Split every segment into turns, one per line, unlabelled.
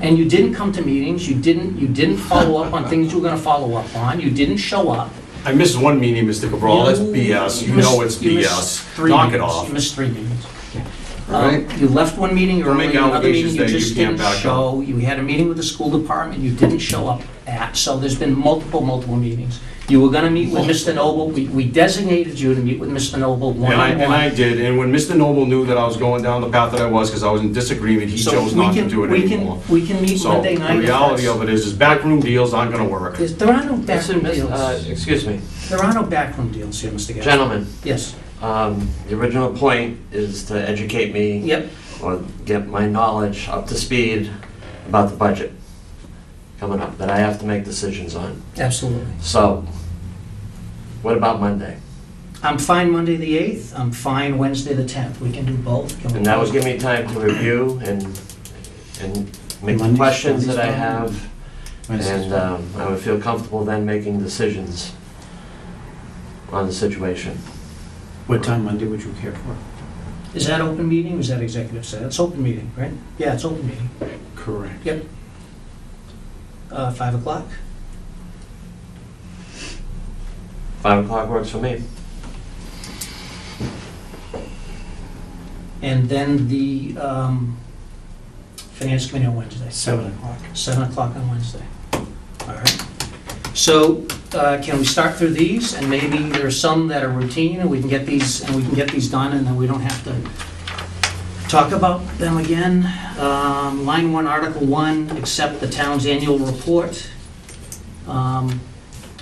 and you didn't come to meetings, you didn't, you didn't follow up on things you were gonna follow up on, you didn't show up.
I missed one meeting, Mr. Cabral, that's
You-
BS, you
missed-
know it's
you missed
BS.
three
Knock it
meetings.
off.
You missed three meetings.
All
Um,
right.
You left one meeting
Don't
early,
make
another meeting
allegations
you
that you
just
can't
didn't
back up.
show. You had a meeting with the school department you didn't show up at, so there's been multiple, multiple meetings. You were gonna meet with Mr. Noble, we we designated you to meet with Mr. Noble
And I, and I
one-on-one.
did, and when Mr. Noble knew that I was going down the path that I was, because I was in disagreement, he
So
chose
we
not to
can-
do it
we can-
anymore.
We can meet
So,
Monday
the
night. if
reality
that's-
of it is, is backroom deals aren't gonna work.
There's- There are no backroom
Uh,
deals.
Excuse me,
There are no backroom deals here, Mr. Gaston.
gentlemen,
Yes,
um, the original point is to educate me
yep,
or get my knowledge up to speed about the budget coming up that I have to make decisions on.
absolutely.
So, what about Monday?
I'm fine Monday the 8th, I'm fine Wednesday the 10th, we can do both. Can we-
And that was giving me time to review and, and make the
Monday's-
questions that I
Monday's
have, and um, I would feel comfortable then making decisions on the situation.
What time Monday would you care for?
Is that open meeting, or is that executive session? It's open meeting, right? Yeah, it's open meeting.
Correct.
Uh, 5 o'clock?
Five o'clock works for me.
And then the um, Finance Committee on Wednesday.
Seven o'clock.
7 o'clock on Wednesday. All right. So uh, can we start through these? And maybe there are some that are routine, and we can get these, and we can get these done, and then we don't have to talk about them again. Um, Line 1, Article 1, accept the town's annual report. Um,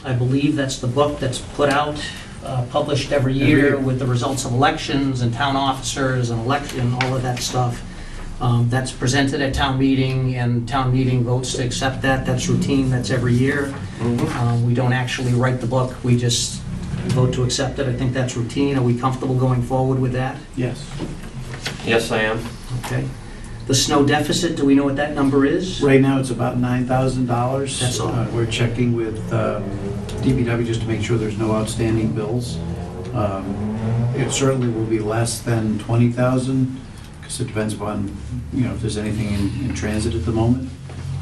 I believe that's the book that's put out, uh, published every year with the results of elections and town officers and election, all of that stuff. Um, That's presented at town meeting, and town meeting votes to accept that. That's routine, that's every year. Um, We don't actually write the book, we just vote to accept it. I think that's routine. Are we comfortable going forward with that?
Yes.
Yes, I am.
Okay. The snow deficit, do we know what that number is?
Right now, it's about nine thousand dollars. Uh,
That's all.
We're checking with um, DPW just to make sure there's no outstanding bills. Um, It certainly will be less than twenty thousand, because it depends upon, you know, if there's anything in, in transit at the moment.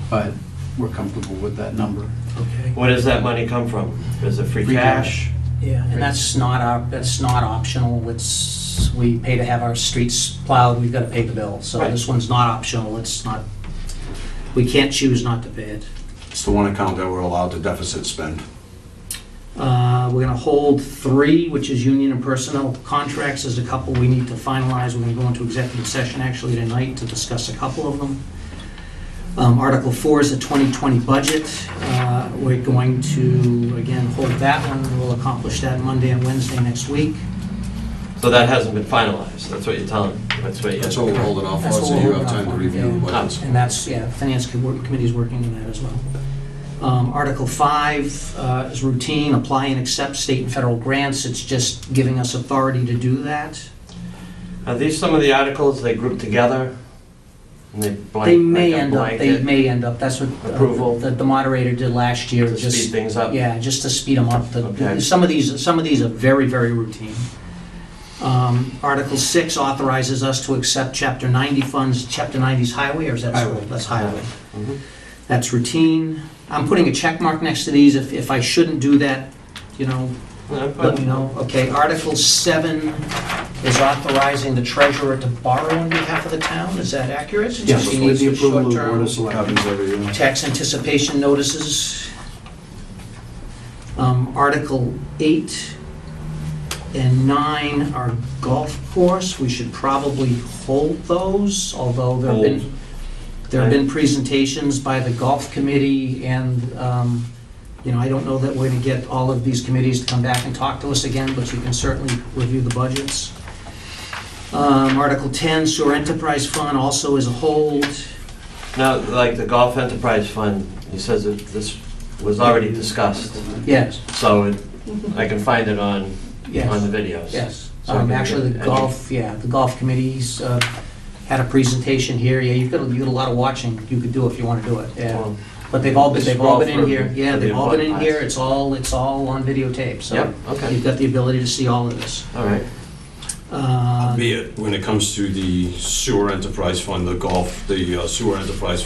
But we're comfortable with that number.
Okay.
Where does that money come from? Is it free
Free
cash?
Yeah, and that's not our, that's not optional, it's, we pay to have our streets plowed, we've gotta pay the bill, so
Right.
this one's not optional, it's not, we can't choose not to pay it.
It's the one account that we're allowed to deficit spend.
Uh, we're gonna hold three, which is union and personnel contracts, there's a couple we need to finalize, we're gonna go into executive session actually tonight to discuss a couple of them. Um, Article four is the 2020 budget, Uh, we're going to, again, hold that one, we'll accomplish that Monday and Wednesday next week.
So that hasn't been finalized, that's what you're telling, me. that's what
That's
you're,
what we're holding off on,
That's what
so
we're
you have
holding off
time to
on,
review the
yeah.
budgets.
And that's, yeah, Finance Com- Committee's working on that as well. Um, Article 5 uh, is routine, apply and accept state and federal grants. It's just giving us authority to do that.
are these some of the articles they group together? And they
They
blank,
may
like a
end up, they
blanket
may end up, that's what uh,
Approval.
the the moderator did last year,
to speed
just,
things up?
yeah, just to speed them up. The-
Okay.
Some of these, some of these are very, very routine. Um, Article 6 authorizes us to accept Chapter 90 funds. Chapter 90's highway, or is that school?
Highway.
That's highway.
Mhm.
That's routine. I'm putting a check mark next to these. If, if I shouldn't do that, you know,
Yeah,
let
but-
me know. Okay, Article 7 is authorizing the treasurer to borrow on behalf of the town. Is that accurate? Since
Yes,
she
with
needs
the
the
approval of the
short-term
Board of Selectmen.
Happens every year.
tax anticipation notices. Um, Article 8 and 9 are golf course. We should probably hold those, although there have been, there have been presentations by the golf committee and, um, you know, I don't know that we're going to get all of these committees to come back and talk to us again, but you can certainly review the budgets. Um, Article 10, sewer enterprise fund also is a hold.
Now, like the Golf Enterprise Fund, he says that this was already discussed,
Yes,
so it- I can find it on,
yes.
on the videos.
Yes,
So I
um,
can
actually, the
get-
golf, yeah, the golf committees, uh, had a presentation here, yeah, you've got, you got a lot of watching you could do if you wanna do it, yeah.
Well,
But they've all been,
This is
they've all
all
been in
for-
here, yeah,
for the
they've all been in
podcast.
here, it's all, it's all on videotape, so
Yep, okay,
you've got the ability to see all of this.
all right.
Uh,
Be it, when it comes to the sewer enterprise fund, the golf, the uh, sewer enterprise